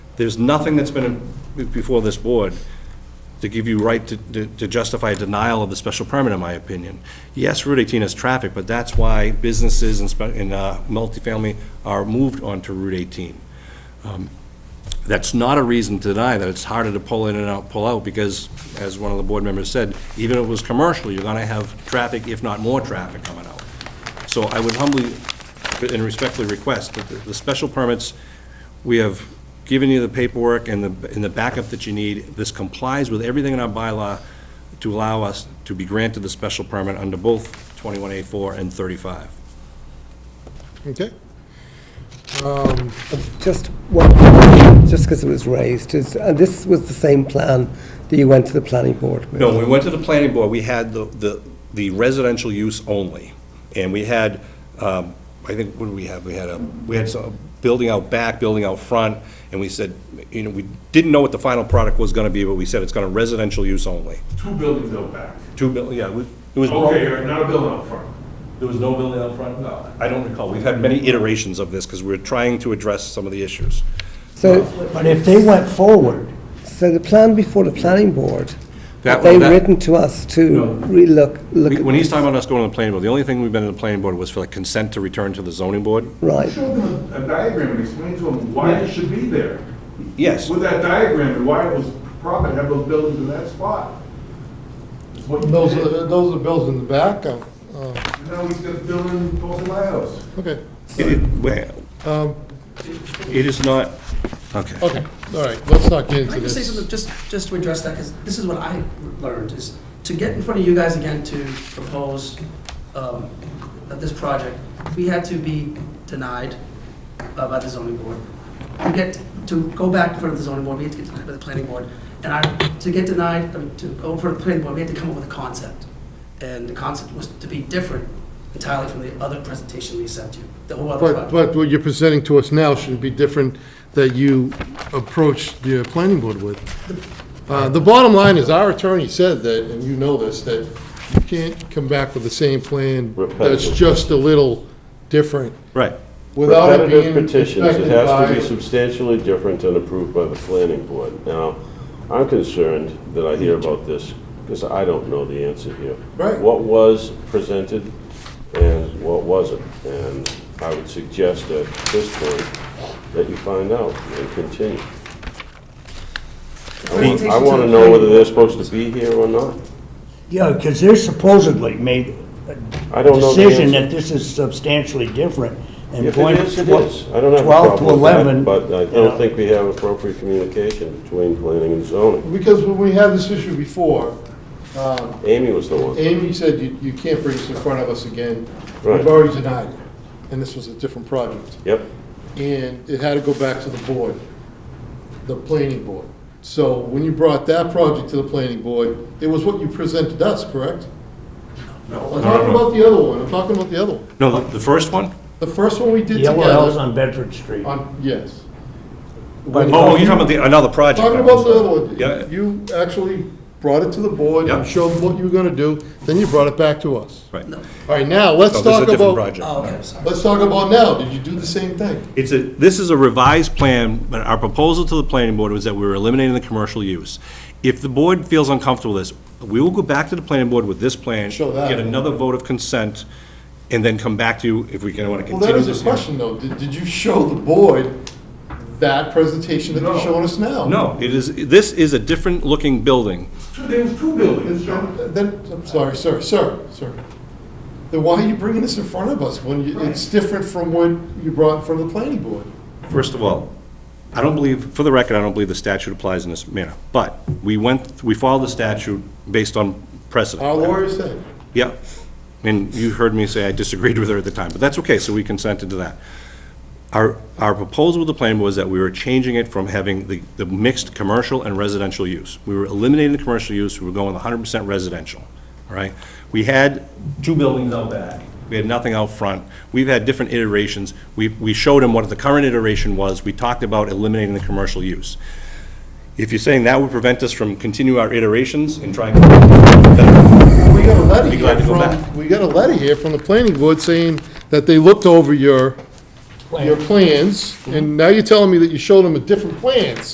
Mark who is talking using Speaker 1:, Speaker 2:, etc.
Speaker 1: There's nothing that's been before this board to give you right to- to to justify a denial of the special permit, in my opinion. Yes, Route 18 has traffic, but that's why businesses and spe- and uh, multifamily are moved onto Route 18. That's not a reason to deny that it's harder to pull in and out, pull out, because, as one of the board members said, even if it was commercial, you're gonna have traffic, if not more traffic coming out. So I would humbly and respectfully request that the- the special permits, we have given you the paperwork and the, and the backup that you need. This complies with everything in our bylaw to allow us to be granted the special permit under both 21A4 and 35.
Speaker 2: Okay.
Speaker 3: Just one, just because it was raised, is, and this was the same plan that you went to the planning board with?
Speaker 1: No, when we went to the planning board, we had the, the the residential use only. And we had, um, I think, what did we have? We had a, we had some building out back, building out front, and we said, you know, we didn't know what the final product was gonna be, but we said it's gonna residential use only.
Speaker 4: Two buildings out back.
Speaker 1: Two buil, yeah, we- it was.
Speaker 2: Oh.
Speaker 4: Okay, or not a building out front.
Speaker 1: There was no building out front? No. I don't recall. We've had many iterations of this, because we're trying to address some of the issues.
Speaker 3: So,
Speaker 5: But if they went forward,
Speaker 3: so the plan before the planning board,
Speaker 1: That-
Speaker 3: they've
Speaker 1: that-
Speaker 3: written to us to relook, look
Speaker 1: We-
Speaker 3: at...
Speaker 1: When he's talking about us going to the planning board, the only thing we've been to the planning board was for like consent to return to the zoning board?
Speaker 3: Right,
Speaker 4: Show them a diagram and explain to them why it should be there.
Speaker 1: Yes.
Speaker 4: With that diagram and why it was proper to have those buildings in that spot. It's what you
Speaker 2: Those
Speaker 4: did.
Speaker 2: are, those are bills in the back, uh, uh,
Speaker 4: And Now he's got the building close to my house.
Speaker 2: okay,
Speaker 1: It- it- well,
Speaker 2: um,
Speaker 1: It is not, okay.
Speaker 2: okay, all right, let's not get
Speaker 6: Can
Speaker 2: into
Speaker 6: I just say
Speaker 2: this.
Speaker 6: something, just, just to address that, because this is what I learned, is to get in front of you guys again to propose um, that this project, we had to be denied uh, by the zoning board. To get, to go back in front of the zoning board, we had to get denied by the planning board. And I, to get denied, I mean, to go in front of the planning board, we had to come up with a concept. And the concept was to be different entirely from the other presentation we sent you, the whole other
Speaker 2: But,
Speaker 6: project.
Speaker 2: but what you're presenting to us now should be different that you approached the planning board with. Uh, The bottom line is, our attorney said that, and you know this, that you can't come back with the same plan that's
Speaker 7: Repetitive.
Speaker 2: just a little different
Speaker 1: Right.
Speaker 2: without it being
Speaker 7: Repetitive petitions, it
Speaker 2: inspected
Speaker 7: has to
Speaker 2: by-
Speaker 7: be substantially different and approved by the planning board. Now, I'm concerned that I hear about this, because I don't know the answer here.
Speaker 2: Right.
Speaker 7: What was presented and what wasn't? And I would suggest at this point that you find out and continue. I want- I
Speaker 6: Presentation
Speaker 7: want to
Speaker 6: the
Speaker 7: know
Speaker 6: planning
Speaker 7: whether they're supposed to be here or not.
Speaker 5: yeah, because they're supposedly made
Speaker 7: I
Speaker 5: a
Speaker 7: don't know the
Speaker 5: decision
Speaker 7: answer.
Speaker 5: that this is substantially different. and
Speaker 7: If
Speaker 5: point
Speaker 7: it is, it
Speaker 5: twe-
Speaker 7: is. I don't have a
Speaker 5: 12 to
Speaker 7: problem with
Speaker 5: 11,
Speaker 7: that, but I
Speaker 5: you know.
Speaker 7: don't think we have appropriate communication between planning and zoning.
Speaker 2: Because when we had this issue before, um,
Speaker 7: Amy was the one.
Speaker 2: Amy said you, you can't bring this in front of us again.
Speaker 7: Right.
Speaker 2: We've already denied it, and this was a different project.
Speaker 7: Yep.
Speaker 2: And it had to go back to the board, the planning board. So when you brought that project to the planning board, it was what you presented us, correct?
Speaker 4: No.
Speaker 2: I'm talking about the other one, I'm talking about the other one.
Speaker 1: No, the the first one?
Speaker 2: The first one we did
Speaker 5: The yellow house
Speaker 2: together,
Speaker 5: on Bedford Street.
Speaker 2: on, yes.
Speaker 5: But-
Speaker 1: Oh, you're talking about the, another project.
Speaker 2: Talking about the other
Speaker 1: Yeah.
Speaker 2: one, you actually brought it to the board,
Speaker 1: Yeah.
Speaker 2: and showed what you were gonna do, then you brought it back to us.
Speaker 1: Right.
Speaker 6: No.
Speaker 2: All right, now, let's
Speaker 1: No, this is a
Speaker 2: talk
Speaker 1: different
Speaker 2: about, Uh,
Speaker 1: project.
Speaker 6: Oh, okay, I'm sorry.
Speaker 2: let's talk about now, did you do the same thing?
Speaker 1: It's a, this is a revised plan, but our proposal to the planning board was that we were eliminating the commercial use. If the board feels uncomfortable with this, we will go back to the planning board with this plan.
Speaker 2: Show that.
Speaker 1: Get another vote of consent, and then come back to you if we can, want to
Speaker 2: Well,
Speaker 1: continue
Speaker 2: that
Speaker 1: this.
Speaker 2: is a
Speaker 1: hearing.
Speaker 2: question, though. Did, did you show the board that presentation that
Speaker 4: No.
Speaker 2: you're showing us now?
Speaker 1: No, it is, this is a different-looking building.
Speaker 4: Two, there was two buildings, John.
Speaker 2: Then, then- I'm sorry, sir, sir, sir. Then why are you bringing this in front of us when you, it's different from what you brought in front of the planning board?
Speaker 1: First of all, I don't believe, for the record, I don't believe the statute applies in this manner, but we went, we followed the statute based on precedent.
Speaker 2: Our lawyer said.
Speaker 1: Yeah, and you heard me say I disagreed with her at the time, but that's okay, so we consented to that. Our, our proposal with the plan was that we were changing it from having the, the mixed commercial and residential use. We were eliminating the commercial use, we were going hundred percent residential, all right? We had two buildings out back, we had nothing out front, we've had different iterations. We, we showed him what the current iteration was, we talked about eliminating the commercial use. If you're saying that would prevent us from continuing our iterations and trying to,
Speaker 2: We got a letter
Speaker 1: Be glad
Speaker 2: here
Speaker 1: to go back.
Speaker 2: from, we got a letter here from the planning board saying that they looked over your, your plans, and now you're telling me that you showed them a different plans.